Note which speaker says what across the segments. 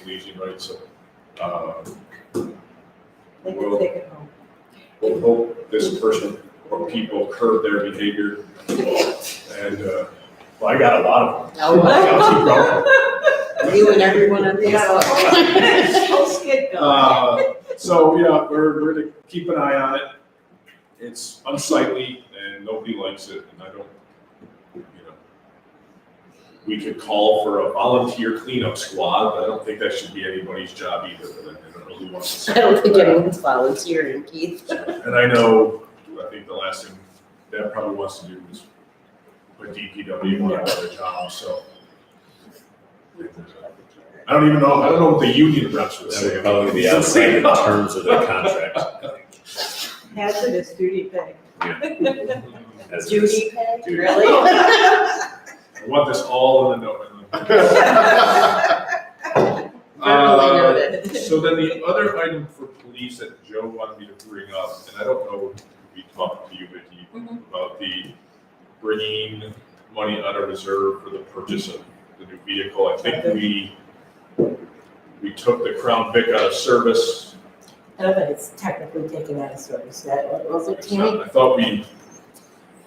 Speaker 1: and easy, right? So, uh,
Speaker 2: They can take it home.
Speaker 1: we'll hope this person or people curb their behavior. And, uh, well, I got a lot of them. I'll keep going.
Speaker 3: You and everyone on
Speaker 2: Yeah. Whole skid going.
Speaker 1: Uh, so, yeah, we're, we're gonna keep an eye on it. It's unsightly and nobody likes it and I don't, you know. We could call for a volunteer cleanup squad, but I don't think that should be anybody's job either, but I don't really want to.
Speaker 3: I don't think anyone's volunteering, Keith.
Speaker 1: And I know, I think the last thing that probably wants to do is put DPW on another job, so. I don't even know, I don't know what the union reps would
Speaker 4: That
Speaker 1: say.
Speaker 4: would
Speaker 1: about
Speaker 4: probably be outside in terms of the contract.
Speaker 2: Hazardous duty pay.
Speaker 4: As it is.
Speaker 3: Duty pay?
Speaker 4: Duty.
Speaker 2: Uh,
Speaker 1: I want this all in the know. Uh,
Speaker 3: Verbally noted.
Speaker 1: So then the other item for police that Joe wanted me to bring up, and I don't know if we talked to you, Vicky, about the bringing money out of reserve for the purchase of the new vehicle. I think we, we took the Crown Vic out of service.
Speaker 2: I don't think it's technically taken out of service, that was it,
Speaker 1: It's not- I thought we,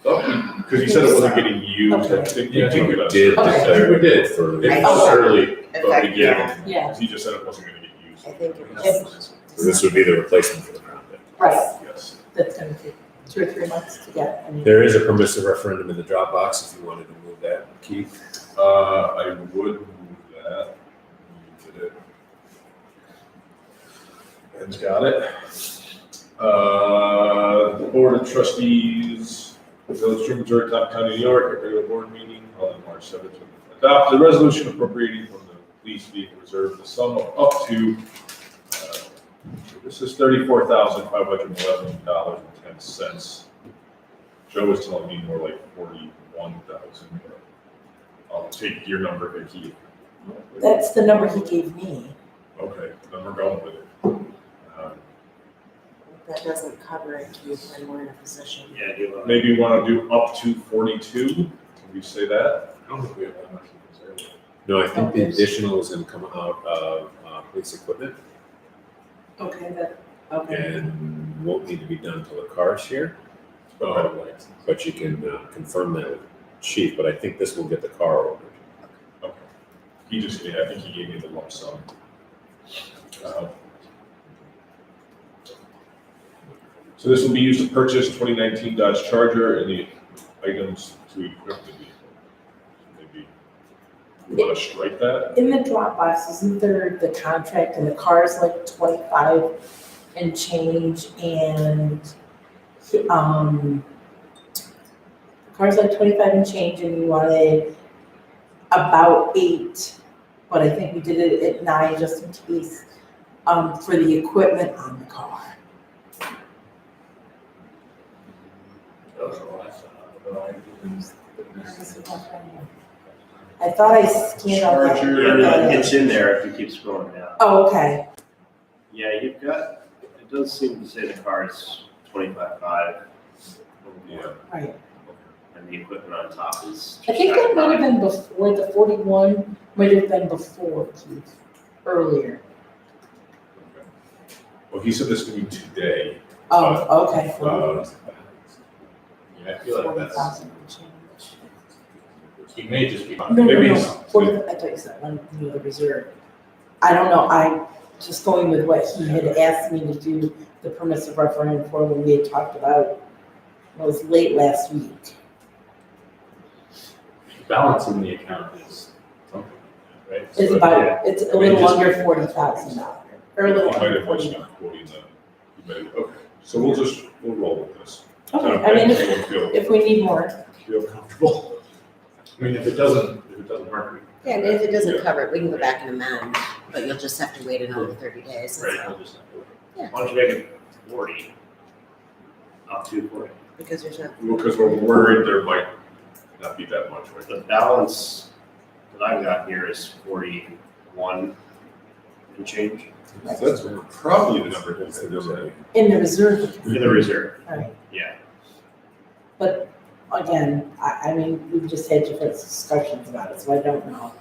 Speaker 1: because he said it wasn't getting used. I think we
Speaker 4: Yeah, I
Speaker 1: took
Speaker 4: think we
Speaker 1: it out of
Speaker 4: did.
Speaker 2: Okay.
Speaker 4: declare it For
Speaker 1: Okay.
Speaker 4: early,
Speaker 1: but we didn't.
Speaker 2: Yeah,
Speaker 1: He just said it wasn't gonna get used.
Speaker 3: I think it
Speaker 2: was-
Speaker 4: this would be the replacement for the Crown Vic.
Speaker 2: right,
Speaker 1: Yes.
Speaker 2: that's gonna take two or three months to get. I mean,
Speaker 4: There is a permissive referendum in the Dropbox if you wanted to move that, Keith.
Speaker 1: Uh, I would move that. Did it. Ben's got it. Uh, the Board of Trustees, the Village of Missouri, Top County, New York, at regular board meeting held on March seventh. Adopt the resolution appropriating from the police vehicle reserve the sum of up to, uh, this is thirty-four thousand five hundred eleven dollars and ten cents. Joe was telling me more like forty-one thousand, but I'll take your number, Vicky.
Speaker 2: That's the number he gave me,
Speaker 1: Okay, then we're going with it. Um,
Speaker 3: That doesn't cover it, Keith, when we're in a position.
Speaker 5: Yeah, do a.
Speaker 1: Maybe you want to do up to forty-two, can we say that?
Speaker 5: I don't think we have that much to consider.
Speaker 4: No, I think the additional is gonna come out of, uh, police equipment
Speaker 2: okay, that, okay.
Speaker 4: and won't need to be done till the car is here.
Speaker 1: Okay.
Speaker 5: Oh.
Speaker 4: Um, But you can uh, confirm that with chief, but I think this will get the car ordered.
Speaker 1: Okay. He just, yeah, I think he gave me the lump sum. Uh, So this will be used to purchase twenty nineteen Dodge Charger and the items to equip the vehicle. Maybe, you want to strike that?
Speaker 2: In the Dropbox, isn't there the contract and the car is like twenty-five and change and, um, the car's like twenty-five and change and you wanted about eight, but I think we did it at nine just in case, um, for the equipment on the car.
Speaker 5: That was the last time, I don't know, I didn't-
Speaker 2: I thought I scanned all that.
Speaker 1: Charger,
Speaker 5: Yeah, It's in there if you keep scrolling down.
Speaker 2: Oh, okay,
Speaker 5: Yeah, you've got, it does seem to say the car is twenty-five five.
Speaker 2: right.
Speaker 5: And the equipment on top is.
Speaker 2: I think that might have been before, the forty-one might have been before, Keith, earlier.
Speaker 1: Okay. Well, he said this could be today.
Speaker 2: Oh, okay.
Speaker 1: Uh,
Speaker 5: Yeah, I feel like that's,
Speaker 2: 40,000 and change.
Speaker 5: he may just be.
Speaker 2: No, no,
Speaker 1: Uh, Maybe
Speaker 2: no,
Speaker 1: it's-
Speaker 2: forty, I thought you said one from the reserve. I don't know, I, just going with what he had asked me to do, the permissive referendum for when we had talked about, it was late last week.
Speaker 5: Balancing the account is something, right?
Speaker 2: It's
Speaker 5: So, yeah,
Speaker 2: about, it's a little under forty thousand dollars, or a
Speaker 1: You
Speaker 2: little
Speaker 1: might
Speaker 2: under
Speaker 1: have
Speaker 2: forty.
Speaker 1: mentioned that quoting that. You may- Okay, so we'll just, we'll roll with this.
Speaker 2: Okay, I mean, if,
Speaker 1: Everyone Feel,
Speaker 2: if we need more,
Speaker 1: feel comfortable.
Speaker 5: I mean, if it doesn't, if it doesn't work, we-
Speaker 3: Yeah, and if it doesn't cover it, we can go back and amend, but you'll just have to wait another thirty days. that's
Speaker 5: right,
Speaker 3: all.
Speaker 5: we'll just not do it.
Speaker 3: Yeah.
Speaker 5: Why don't you make it forty? Up to forty.
Speaker 3: Because there's no,
Speaker 1: Because we're worried there might not be that much, right?
Speaker 5: The balance that I've got here is forty-one and change
Speaker 1: That's probably the number.
Speaker 4: That's the number.
Speaker 2: in the reserve,
Speaker 5: in
Speaker 4: Mm-hmm.
Speaker 5: the reserve,
Speaker 2: right,
Speaker 5: yeah.
Speaker 2: but again, I, I mean, we've just had different discussions about it, so I don't know.